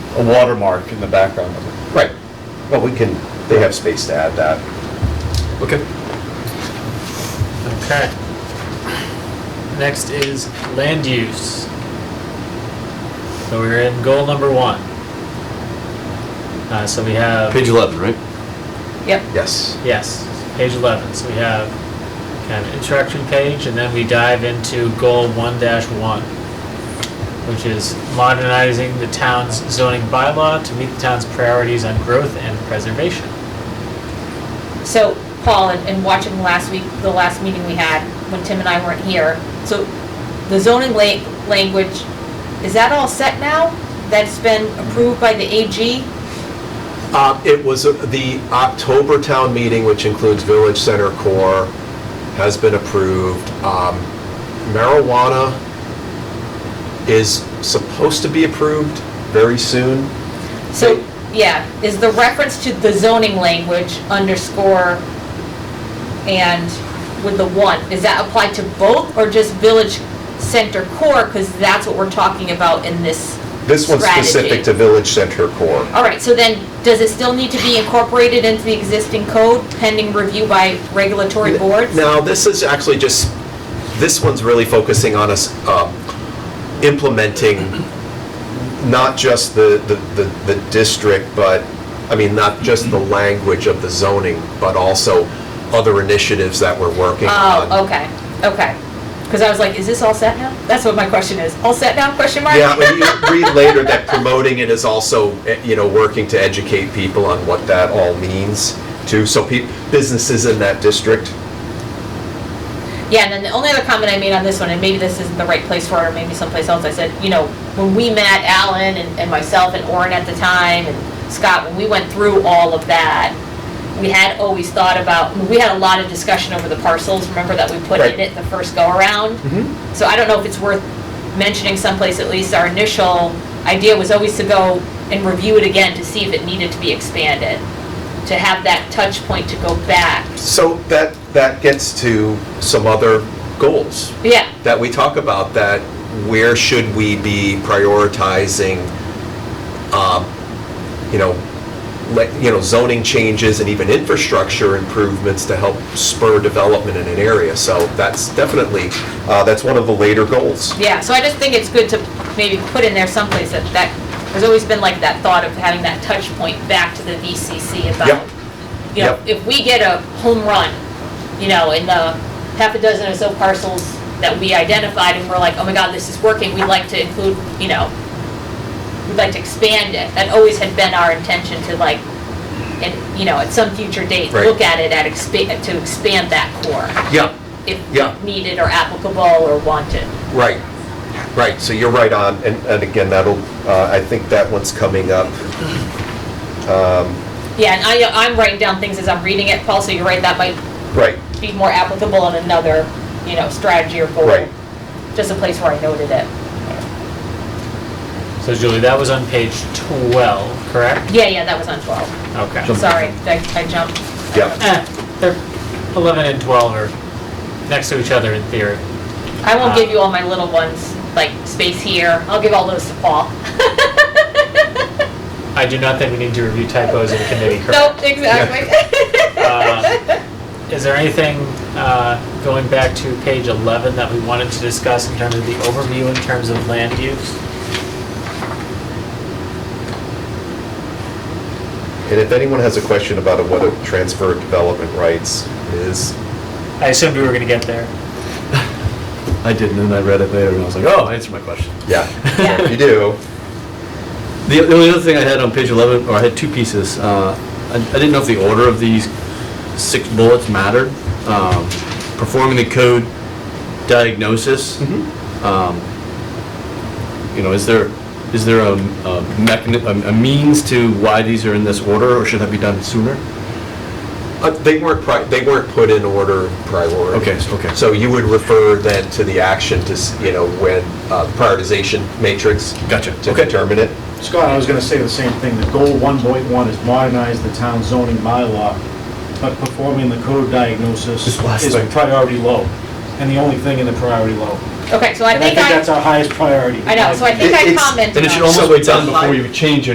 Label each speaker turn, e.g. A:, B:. A: a watermark in the background of it.
B: Right,
A: But we can, they have space to add that.
B: okay.
C: Okay. Next is land use. So we're in goal number one. Uh, so we have,
B: Page 11, right?
D: Yep.
A: Yes.
C: yes, page 11. So we have kind of introduction page, and then we dive into goal 1 1, which is modernizing the town's zoning bylaw to meet the town's priorities on growth and preservation.
D: So, Paul, and and watching last week, the last meeting we had, when Tim and I weren't here, so the zoning la- language, is that all set now? That's been approved by the AG?
E: Uh, It was, uh, the October town meeting, which includes Village Center Core, has been approved. Um, Marijuana is supposed to be approved very soon.
D: So, yeah, is the reference to the zoning language underscore and with the one, is that applied to both or just village center core? Because that's what we're talking about in this
E: This one's specific
D: Strategy.
E: to Village Center Core.
D: All right, so then, does it still need to be incorporated into the existing code pending review by regulatory boards?
E: Now, this is actually just, this one's really focusing on us um, implementing not just the, the, the- the district, but, I mean, not just the language of the zoning, but also other initiatives that we're working on.
D: Oh, okay, okay. Because I was like, is this all set now? That's what my question is. All set now, question mark?
E: Yeah, when you read later that promoting it is also, eh, you know, working to educate people on what that all means too. So peop businesses in that district,
D: Yeah, and then the only other comment I made on this one, and maybe this isn't the right place for it, or maybe someplace else, I said, you know, when we met Alan and, and myself and Orin at the time, and Scott, when we went through all of that, we had always thought about, we had a lot of discussion over the parcels, remember that we put
E: Right.
D: in it the first go-around? So I don't know if it's worth mentioning someplace, at least our initial idea was always to go and review it again to see if it needed to be expanded, to have that touch point to go back.
E: so that, that gets to some other goals
D: Yeah,
E: that we talk about, that where should we be prioritizing, um, you know, like, you know, zoning changes and even infrastructure improvements to help spur development in an area. So that's definitely, uh, that's one of the later goals.
D: Yeah, so I just think it's good to maybe put in there someplace that, that, there's always been like that thought of having that touch point back to the VCC about,
E: Yep.
D: you know,
E: Yep.
D: if we get a home run, you know, in the half a dozen or so parcels that we identified and we're like, oh my God, this is working, we'd like to include, you know, we'd like to expand it. That always had been our intention to like, and, you know, at some future date,
E: Right.
D: look at it at expand, to expand that core
E: Yeah, Yeah.
D: if needed or applicable or wanted.
E: right, right, so you're right on, and, and again, that'll, uh, I think that one's coming up. Um,
D: Yeah, and I, I'm writing down things as I'm reading it, Paul, so you're right, that might
E: Right,
D: be more applicable in another, you know, strategy or goal.
E: Right.
D: Just a place where I noted it.
C: So Julie, that was on page 12, correct?
D: Yeah, yeah, that was on 12.
C: Okay.
D: Sorry, I I jumped.
E: yeah,
C: Eh, they're 11 and 12 are next to each other in theory.
D: I won't give you all my little ones, like space here. I'll give all those to Paul.
C: I do not think we need to review typos in committee, correct?
D: Nope, exactly.
C: Uh, Is there anything, uh, going back to page 11, that we wanted to discuss in terms of the overview, in terms of land use?
E: and if anyone has a question about what a transfer of development rights is,
C: I assumed we were going to get there.
B: I didn't, and I read it later, and I was like, oh, answer my question.
E: yeah,
D: Yeah.
E: if you do,
B: The the only other thing I had on page 11, or I had two pieces, uh, I I didn't know if the order of these six bullets mattered. Um, Performing the code diagnosis. Um, You know, is there, is there a a mechani- a a means to why these are in this order, or should that be done sooner?
E: Uh, They weren't, pri- they weren't put in order priority.
B: Okay, so- okay.
E: So you would refer then to the action to, s- you know, when uh, prioritization matrix
B: Gotcha.
E: to determine it.
F: Scott, I was gonna say the same thing, that goal 1.1 is modernize the town zoning bylaw, but performing the code diagnosis
B: This last
F: is
B: thing.
F: priority low, and the only thing in the priority low.
D: Okay, so I
F: And I
D: think
F: think that's
D: I,
F: our highest priority.
D: I know, so I think
E: It-
D: I
E: it's-
D: commented on.
B: And it should
D: that.
B: almost
E: So
B: be
E: it's
B: done
E: unlike-
B: before you change